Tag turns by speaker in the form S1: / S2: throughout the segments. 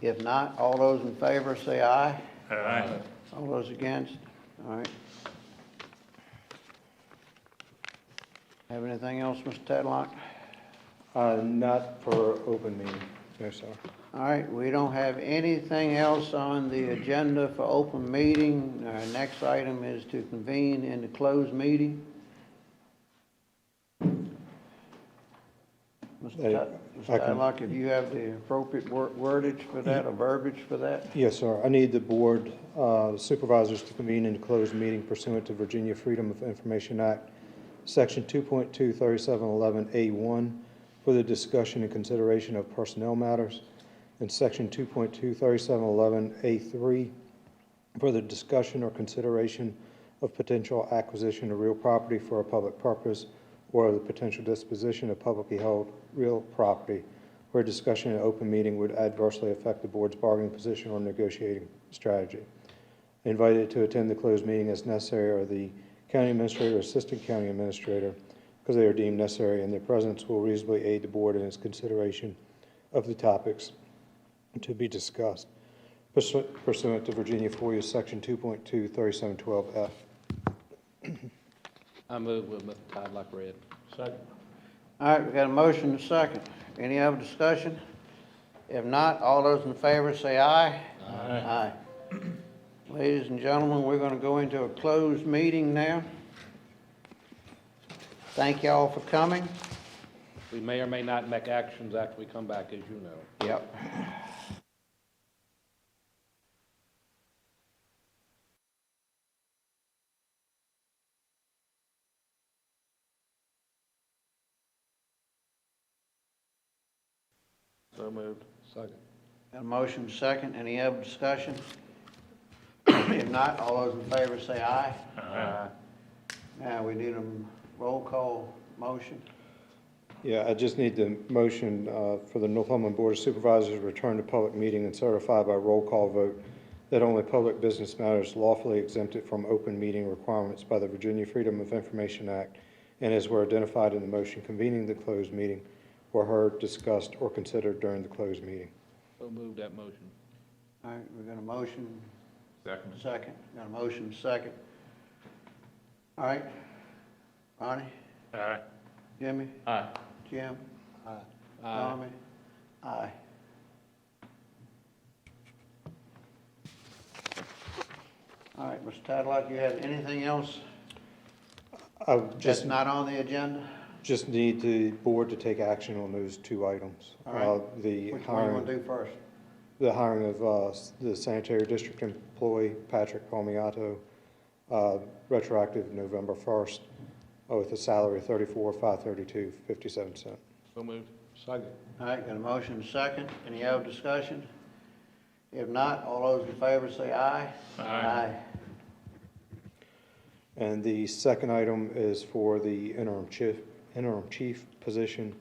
S1: If not, all those in favor say aye.
S2: Aye.
S1: All those against? All right. Have anything else, Mr. Tadlock?
S3: Uh, Not for open meeting, no, sir.
S1: All right, we don't have anything else on the agenda for open meeting. Our next item is to convene in the closed meeting.
S3: Hey,
S1: Mr.
S3: if I can-
S1: Tadlock, if you have the appropriate wor- wordage for that or verbiage for that?
S3: Yes, sir. I need the board uh, supervisors to convene in closed meeting pursuant to Virginia Freedom of Information Act, Section 2.23711A1, for the discussion and consideration of personnel matters, and Section 2.23711A3, for the discussion or consideration of potential acquisition of real property for a public purpose or the potential disposition of publicly held real property where discussion in open meeting would adversely affect the board's bargaining position or negotiating strategy. Invited to attend the closed meeting as necessary are the county administrator, or assistant county administrator, because they are deemed necessary, and their presence will reasonably aid the board in its consideration of the topics to be discussed pursu- pursuant to Virginia FOIA Section 2.2, 3712F.
S4: I move with Mr. Tadlock read.
S1: All right, we got a motion and a second. Any other discussion? If not, all those in favor say aye. Aye. Ladies and gentlemen, we're gonna go into a closed meeting now. Thank y'all for coming.
S4: We may or may not make actions after we come back, as you know.
S1: Yep.
S4: So moved. Second.
S1: Got a motion and a second. Any other discussion? If not, all those in favor say aye.
S4: Aye.
S1: Now, we need a roll call motion.
S3: Yeah, I just need the motion uh, for the Northumberland Board of Supervisors to return to public meeting and certify by roll call vote that only public business matters lawfully exempted from open meeting requirements by the Virginia Freedom of Information Act and as were identified in the motion convening the closed meeting were heard, discussed, or considered during the closed meeting.
S4: So moved that motion.
S1: All right, we got a motion
S2: Second.
S1: Second, got a motion, second. All right, Ronnie,
S2: Aye.
S1: Jimmy,
S2: Aye.
S1: Jim,
S4: Aye.
S1: Tommy, aye. All right, Mr. Tadlock, you have anything else
S3: I would
S1: that's
S3: just,
S1: not on the agenda?
S3: just need the board to take action on those two items.
S1: All right.
S3: Uh, The
S1: Which one you
S3: hiring,
S1: want to do first?
S3: the hiring of uh, the sanitary district employee, Patrick Palmiato, uh, retroactive November 1st, uh, with a salary of 34,532.57 cent.
S4: So moved. Second.
S1: All right, got a motion, second, any other discussion? If not, all those in favor say aye.
S2: Aye.
S3: And the second item is for the interim chief, interim chief position,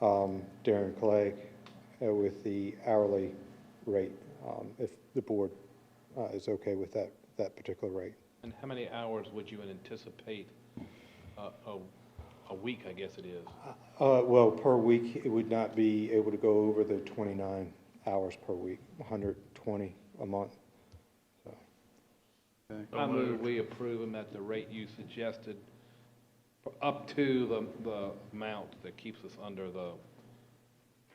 S3: um, Darren Clegg, uh, with the hourly rate, um, if the board uh, is okay with that, that particular rate.
S4: And how many hours would you anticipate, uh, a, a week, I guess it is?
S3: Uh, well, per week, it would not be able to go over the twenty-nine hours per week, hundred twenty a month.
S2: So
S4: I move
S2: moved.
S4: we approve them at the rate you suggested, for up to the, the amount that keeps us under the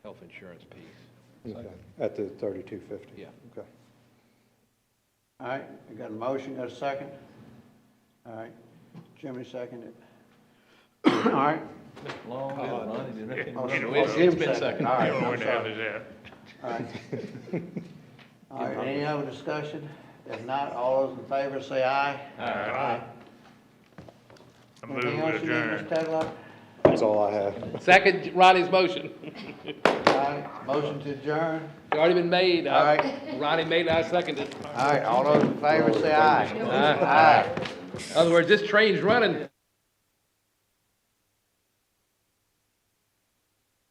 S4: health insurance piece.
S3: Okay, At the thirty-two fifty?
S4: Yeah.
S3: Okay.
S1: All right, we got a motion, got a second? All right, Jimmy seconded. All right.
S5: Long, and Ronnie didn't make it.
S1: Oh,
S2: Either
S1: oh,
S2: way,
S1: Jim
S4: it's been seconded.
S1: All right,
S2: You know where
S1: I'm
S2: the hell
S1: sorry.
S2: is that?
S1: All right. All right, any other discussion? If not, all those in favor say aye.
S2: Aye. I move
S1: Anything else you need, Mr.
S2: adjourned.
S1: Tadlock?
S3: That's all I have.
S4: Second Ronnie's motion.
S1: All right, motion to adjourn.
S4: It's already been made. I-
S1: All right.
S4: Ronnie made it, I seconded it.
S1: All right, all those in favor say aye.
S4: Aye.
S1: Aye.
S4: In other words, this train's running.